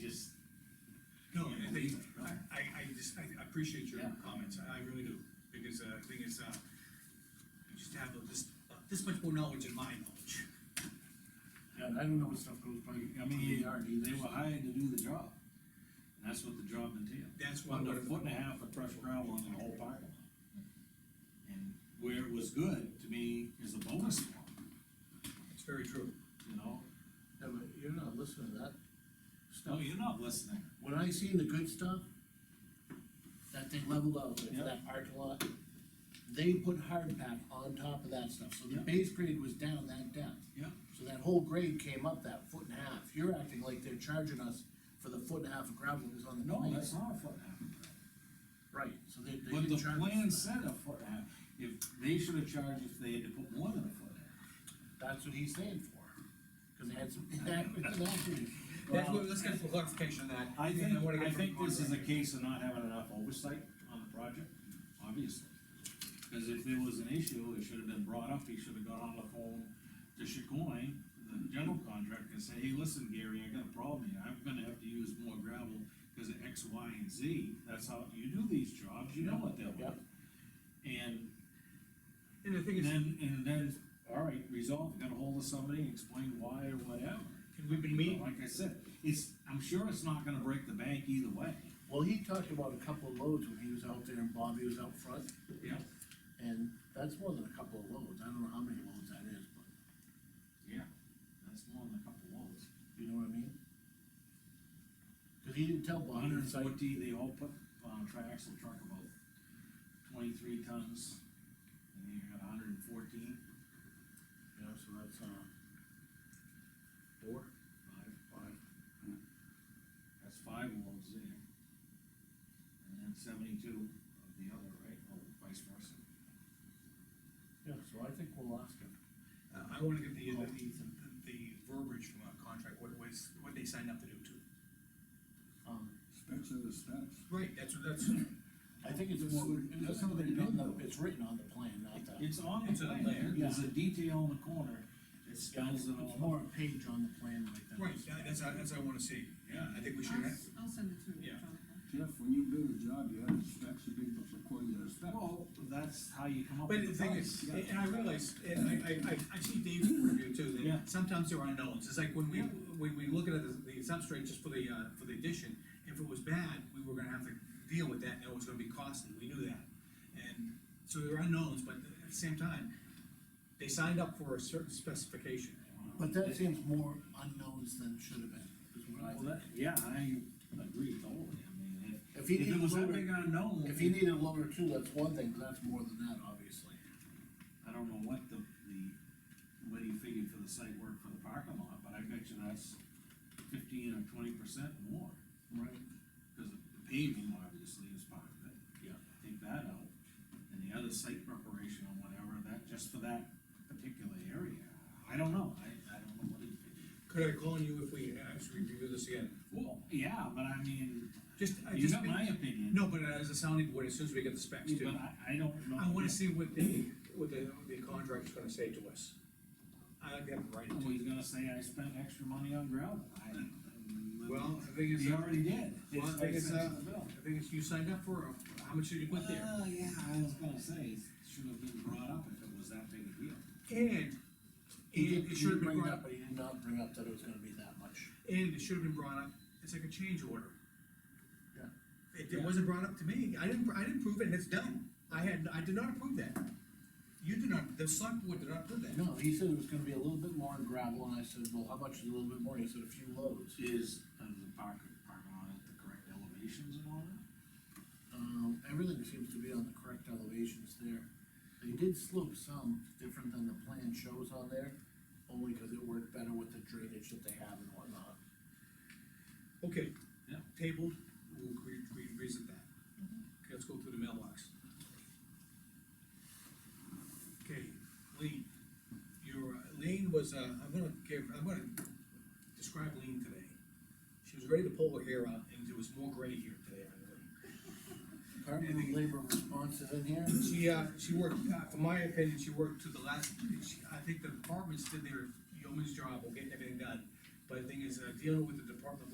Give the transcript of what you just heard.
just, No, Yeah, I, I think- I, I just, I appreciate your Yeah. comments, I I really do, because, uh, the thing is, uh, you just have this, this much more knowledge than my knowledge. Yeah, and I don't know what stuff goes by, I mean, they are, they were hired to do the job. And that's what the job entailed. That's why, Under what a foot and a half of crushed gravel on the whole parking lot. And where it was good, to me, is a bonus one, it's very true. you know? Yeah, but you're not listening to that No, stuff. you're not listening. When I seen the good stuff, that they leveled out, with Yeah. that parking lot, they put hard pack on top of that stuff, so the Yeah. base grade was down that depth. Yeah. So that whole grade came up that foot and a half, you're acting like they're charging us for the foot and a half of gravel that was on the. No, plan. that's not a foot and a half. Right, so they, they But didn't the charge. plan said a foot and a half, if, they should have charged if they had to put more than a foot and a half. That's what he's saying for, cause they had some inaccurate, inaccurate. That's what, let's get some clarification on that. I and think, wanna get I from think Conrad. this is a case of not having enough oversight on the project, obviously. Cause if there was an issue, it should have been brought up, he should have got on the phone to Chacon, the general contractor, and say, hey, listen, Gary, I got a problem here, I'm gonna have to use more gravel because of X, Y, and Z, that's how you do these jobs, you know what they're like. And And the thing and is, then, and then, all right, resolve, got hold of somebody, explain why or whatever. and we've been meeting, Like I said, it's, I'm sure it's not gonna break the bank either way. Well, he talked about a couple of loads when he was out there and Bobby was out front, Yeah. and that's more than a couple of loads, I don't know how many loads that is, but, Yeah, that's more than a couple loads. you know what I mean? Cause he didn't tell Bobby, Hundred and it's like, forty, they all put on a triaxle truck about twenty-three tons, and then you got hundred and fourteen, you know, so that's, uh, four, five, five, that's five loads there. And then seventy-two of the other, right, or vice versa. yeah, so I think we'll ask him. uh, I wanna get the, the, the- the verbiage from our contract, what was, what they signed up to do too. Um, Specs are the specs. Right, that's, that's, I think it's That's more, what- it's that's what they written on the, did, though. it's written on the plan, not the, It's on the It's on the plan, plan, there's yeah. a detail in the corner, it spells it it's all more out. a page on the plan like that. right, that- that's, that's what I wanna see, yeah, I think we should, I'll, have- s- I'll send it to you. Yeah. Jonathan. Jeff, when you build a job, you have the specs, you build up according to the specs. Well, that's how you come up But with the the thing price. is, and I realize, and I, I, I, I see Dave's review too, Yeah. that sometimes there are unknowns, it's like when we, when we look at the, the substrate just for the, uh, for the addition, if it was bad, we were gonna have to deal with that, and it was gonna be costly, we knew that. And, so there are unknowns, but at the same time, they signed up for a certain specification. But that seems more unknowns than should have been, is what I Well, think. that, yeah, I agree totally, I mean, If if, he if it didn't was lower- that big unknown. If you need a lower two, that's one thing, but that's more than that, obviously. I don't know what the, the, what he figured for the site work for the parking lot, but I bet you that's fifteen or twenty percent more. Right. Cause the paving obviously is part of it. Yeah. Take that out, and the other site preparation or whatever, that, just for that particular area, I don't know, I, I don't know what he figured. Could I call on you if we actually review this again? Well, yeah, but I mean, Just, I you just, got my opinion. no, but as a sounding board, as soon as we get the specs But too, I, I don't know. I wanna see what the, what the, what the contractor's gonna say to us. I like to have it right. Oh, Well, he's gonna say I spent extra money on gravel, I. Well, the thing is, He uh, already did. well, It's I think it's, five cents uh, on the bill. I think it's you signed up for, uh, how much did you put there? Well, yeah, I was gonna say, it should have been brought up if it was that big a deal. And, He did, and he it should have been did bring it brought up, up, but he did not bring up that it was gonna be that much. and it should have been brought up, it's like a change order. Yeah. It, it wasn't brought up to me, I didn't, I didn't prove it, and it's done, I had, I did not approve that. You did not, the select board did not approve that. No, he said it was gonna be a little bit more in gravel, and I said, well, how much is a little bit more? He said a few loads. Is, uh, the park, parking lot at the correct elevations and all that? Um, everything seems to be on the correct elevations there. They did slope some different than the plan shows on there, only because it worked better with the drainage that they have and whatnot. Okay. Yeah. Tabled, we'll re- re- revisit that. Okay, let's go through the mailbox. Okay, Lean, your, uh, Lean was, uh, I'm gonna give, I'm gonna describe Lean today. She was ready to pull her hair out, and there was more gray here today, I believe. Department of Labor responses in here, She, uh, she worked, uh, from my opinion, she worked to the last, she, I think the departments did their yeoman's job of getting everything done. But the thing is, uh, dealing with the Department of